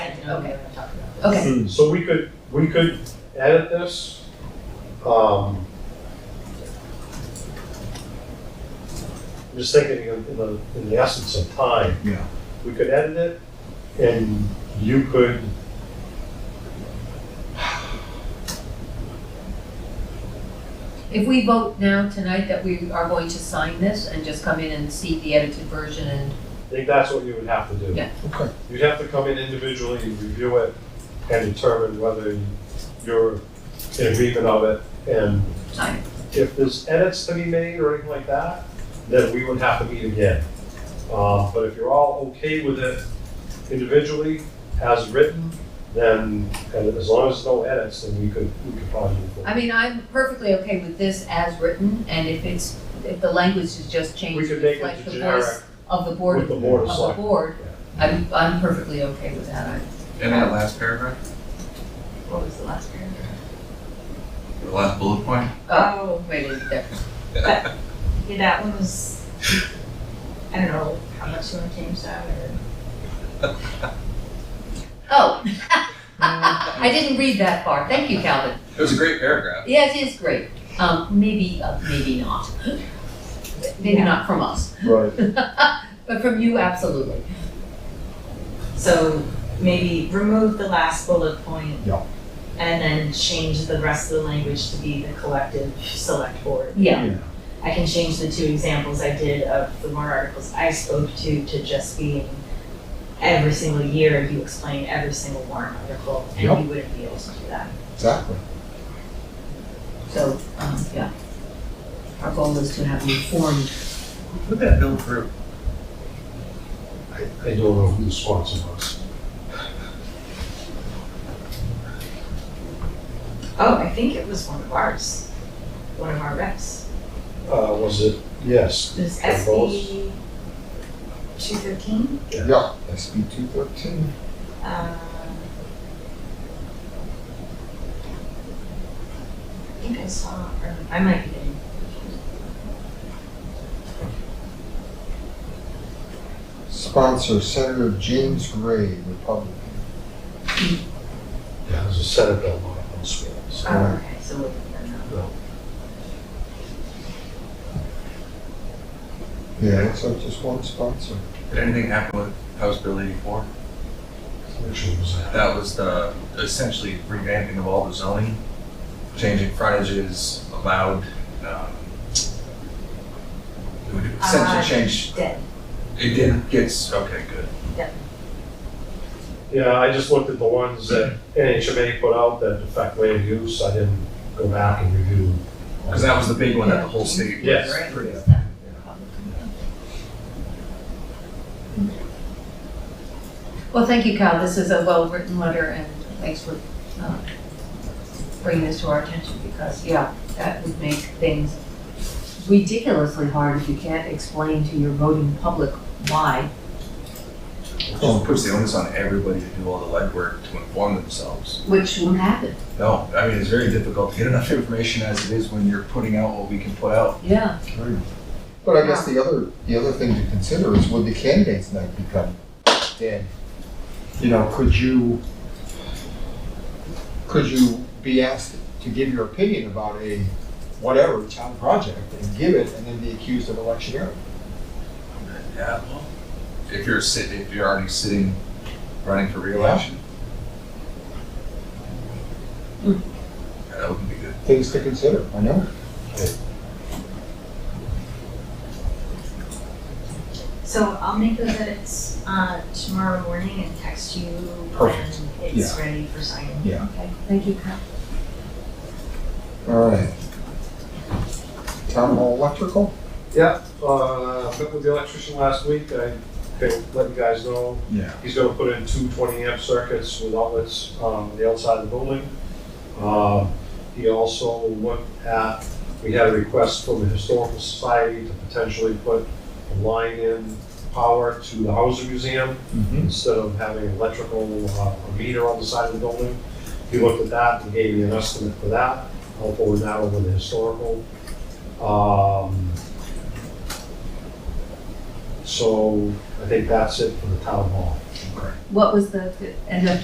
okay, okay, Hmm, So we could, we could edit this. um, I'm just thinking in in the, in the essence of time. Yeah. We could edit it and you could. if we vote now tonight that we are going to sign this and just come in and see the edited version and, I think that's what you would have to do. Yeah. Okay. You'd have to come in individually, review it, and determine whether you're in agreement of it. And sign it. if there's edits to be made or anything like that, then we would have to meet again. Uh, but if you're all okay with it individually, as written, then, and as long as no edits, then we could, we could probably move forward. I mean, I'm perfectly okay with this as written, and if it's, if the language is just We changed to could make reflect it the generic voice of the board, with of the board of the select. board, I'm, I'm perfectly okay with that, I, In that last paragraph, what was the last paragraph? the last bullet point, Oh, Wait, is it there? yeah, that one was, I don't know how much you want to change that or. Oh, I didn't read that far, thank you, Calvin. it was a great paragraph. Yes, it is great, um, maybe, uh, maybe not. Maybe Yeah. not from us, Right. but from you, absolutely. So maybe remove the last bullet point. Yeah. And then change the rest of the language to be the collective select board. Yeah, I can change the two examples I did of the warrant articles I spoke to to just being every single year, you explain every single warrant article, Yep. and you wouldn't be able to do that. Exactly. so, um, yeah. Our goal is to have an informed, Put that bill through. I, I don't know who the sponsor was. Oh, I think it was one of ours, one of our reps. Uh, was it, yes, It was Of SB two thirteen. Yeah, SB two thirteen. Um, I think I saw, or I might be getting. Sponsor Senator James Gray, Republican. yeah, it was a Senate bill, not a House bill. so- Oh, okay, so we'll put that now. Yeah, looks like just one sponsor. Did anything happen with House Bill eighty-four? Which one was that? That was the, essentially revamping of all the zoning, changing frontages allowed, um, it would Uh, essentially change, Dead. it did, gets, okay, good. Yeah, I just looked at the ones that NHMA put out that affect land use, I didn't go back and review. Cause that was the big one that the whole state was. Yes. pretty- well, thank you, Cal, this is a well-written letter, and thanks for, uh, bringing this to our attention, because, yeah, that would make things ridiculously hard if you can't explain to your voting public why. Just puts the onus on everybody to do all the legwork to inform themselves. Which won't happen. No, I mean, it's very difficult to get enough information as it is when you're putting out what we can put out. Yeah. But I guess the other, the other thing to consider is would the candidates night become dead? You know, could you, could you be asked to give your opinion about a whatever town project and give it and then be accused of electioneering? Yeah, well. If you're sitting, if you're already sitting, running for reelection. Hmm. Yeah, That wouldn't be good. Things to consider, I know. So I'll make those edits, uh, tomorrow morning and text you Perfect. when it's ready for signing. Yeah. Okay. Thank you, Cal. All right. Town hall electrical? Yeah, uh, met with the electrician last week, I can let you guys know, Yeah. he's gonna put in two 20 amp circuits with outlets, um, on the outside of the building. Uh, he also looked at, we had a request from the historical society to potentially put a line in power to the Hauser Museum. Mm-hmm. instead of having electrical uh, meter on the side of the building. He looked at that and gave me an estimate for that. I'll forward that over to historical. Um, So I think that's it for the town hall. What was the, end up